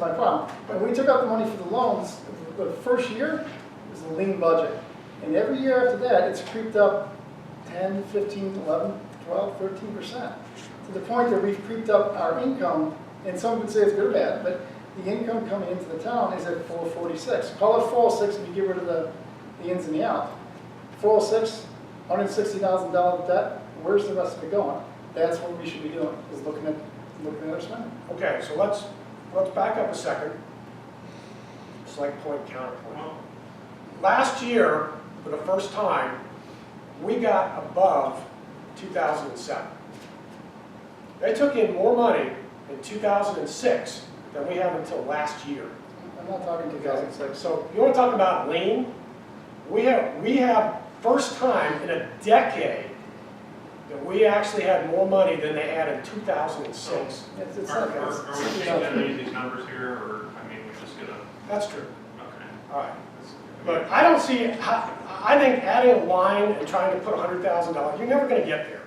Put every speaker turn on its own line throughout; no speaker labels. my problem. When we took out the money for the loans, the first year was a lean budget. And every year after that, it's creeped up 10, 15, 11, 12, 13 percent. To the point that we've creeped up our income, and some would say it's good or bad, but the income coming into the town is at 446. Call it 406 if you get rid of the, the ins and the outs. 406, $160,000 debt, where's the rest of it going? That's what we should be doing, is looking at, looking at our spending.
Okay, so let's, let's back up a second. Select point, counterpoint. Last year, for the first time, we got above 2007. They took in more money in 2006 than we have until last year.
I'm not talking 2006.
So you want to talk about lean? We have, we have, first time in a decade that we actually had more money than they had in 2006.
It's, it's
Are,
not,
are,
it's,
are we
it's
changing
not-
any of these numbers here, or, I mean, we're just gonna,
That's true.
okay.
All right.
that's-
But I don't see, how- I think adding a line and trying to put hundred thousand dollars, you're never gonna get there.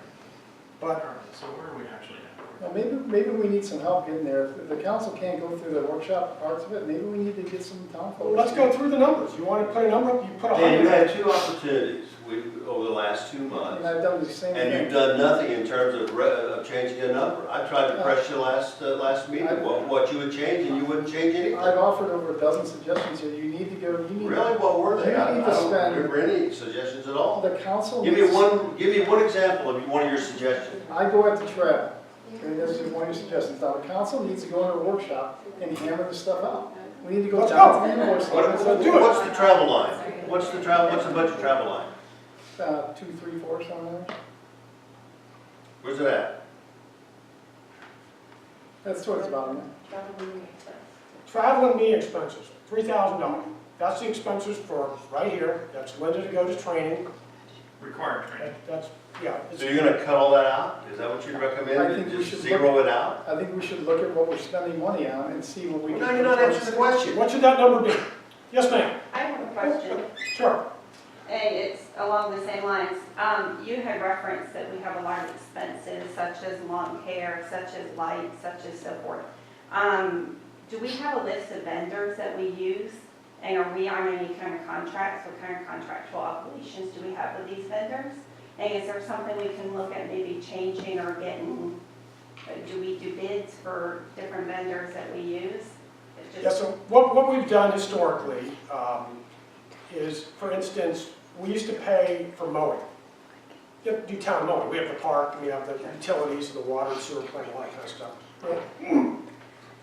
All
But,
right, So where are we actually at?
now, maybe, maybe we need some help getting there. If the council can't go through the workshop parts of it, maybe we need to get some town
well,
folks.
let's go through the numbers, you wanna put a number up, you put a
Dan, you
hundred.
had two opportunities we- over the last two
And
months,
I've done the same
and you've
thing.
done nothing in terms of re- of changing a number. I tried to press you last, uh, last meeting, what, what you would change, and you wouldn't change
I've
anything.
offered over a dozen suggestions here. You need to go, you need,
Really, what were they? I
You need to
I don't
spend-
remember any suggestions at all.
the council.
Give me
needs-
one, give me one example of one of your suggestions.
I go at the trail. Okay, that's just one of your suggestions. Now, the council needs to go into a workshop and hammer this stuff out. We need to go
Let's
down
go.
to the invoice.
What,
do it.
what's the travel line? What's the travel, what's the budget travel line?
Uh, two, three, four, somewhere.
Where's it at?
That's towards the bottom.
Travel and meeting expenses, three thousand dollars. That's the expenses for right here, that's Linda to go to training,
Required training.
That- that's, yeah. it's-
So you're gonna cut all that out? Is that what you
I
recommend,
think we
just
should look-
zero it out?
I think we should look at what we're spending money on and see what we can.
No, you're not answering the question.
What should that number be? Yes, ma'am,
I have a question,
sure.
and it's along the same lines. Um, you had referenced that we have a lot of expenses such as lawn care, such as lights, such as so forth. Um, do we have a list of vendors that we use? And are we on any kind of contracts? What kind of contractual obligations do we have with these vendors? And is there something we can look at maybe changing or getting, uh, do we do bids for different vendors that we use? It
Yeah,
just-
so what, what we've done historically um, is, for instance, we used to pay for mowing. You have to do town mowing, we have the park, we have the utilities, the water, and sewer plant, all that kind of stuff.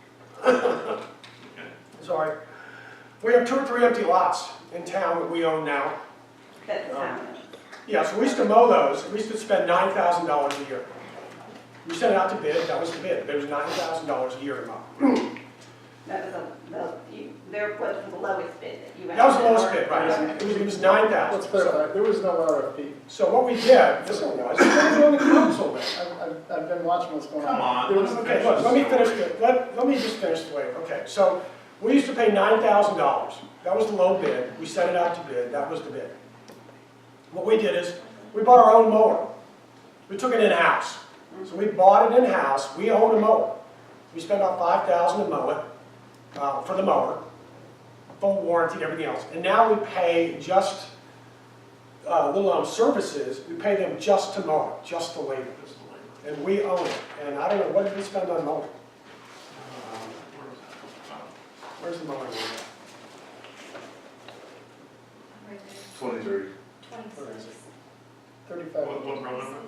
Sorry. We have two or three empty lots in town that we own now.
That's the sound.
Yeah, so we used to mow those, we used to spend nine thousand dollars a year. We sent it out to bid, that was the bid, there was nine thousand dollars a year to mow.
That was the, the, you, there was the lowest bid that you had.
That was the lowest bid, right, it was, it was nine thousand.
Let's clarify, there was no RFP.
So what we did, this one was, we were on the council then.
I've, I've, I've been watching what's going on.
Come on.
There was-
Okay, look, let me finish, the- let, let me just finish the waiver, okay, so, we used to pay nine thousand dollars, that was the low bid, we set it out to bid, that was the bid. What we did is, we bought our own mower, we took it in-house, so we bought it in-house, we own a mower. We spent about five thousand to mow it, uh, for the mower, full warranty and everything else, and now we pay just, uh, Little Elm Services, we pay them just to mow it, just the labor.
That's the labor.
And we own it, and I don't know, what did we spend on mowing? Um,
Where was that? Oh,
Where's the mowing?
Twenty-three,
Where is it? Uh,
Thirty-five.
What, what row number?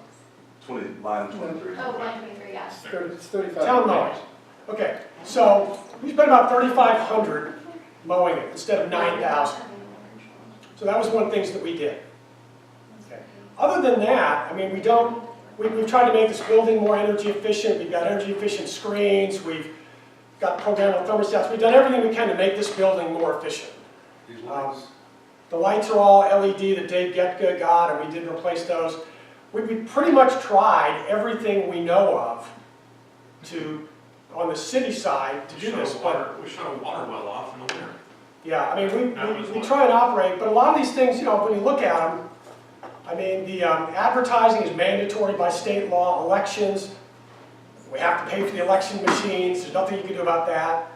twenty, line twenty-three.
Oh, one twenty-three, yeah.
It's thirty- It's thirty-five.
Town mowers. Okay, so we spent about thirty-five hundred mowing it instead of nine thousand. So that was one of the things that we did. Okay. Other than that, I mean, we don't, we, we've tried to make this building more energy efficient, we've got energy efficient screens, we've got programmable thermostats, we've done everything we can to make this building more efficient.
These
Um,
lines.
The lights are all E LED that Dave Getka got, and we did replace those. We, we pretty much tried everything we know of to, on the city side, to
We
do
shut a
this, but
water- We shut a water well off in the winter.
yeah, I mean, we,
That was
we, we
one.
try and operate, but a lot of these things, you know, when you look at them, I mean, the um, advertising is mandatory by state law, elections, we have to pay for the election machines, there's nothing you can do about that. Uh,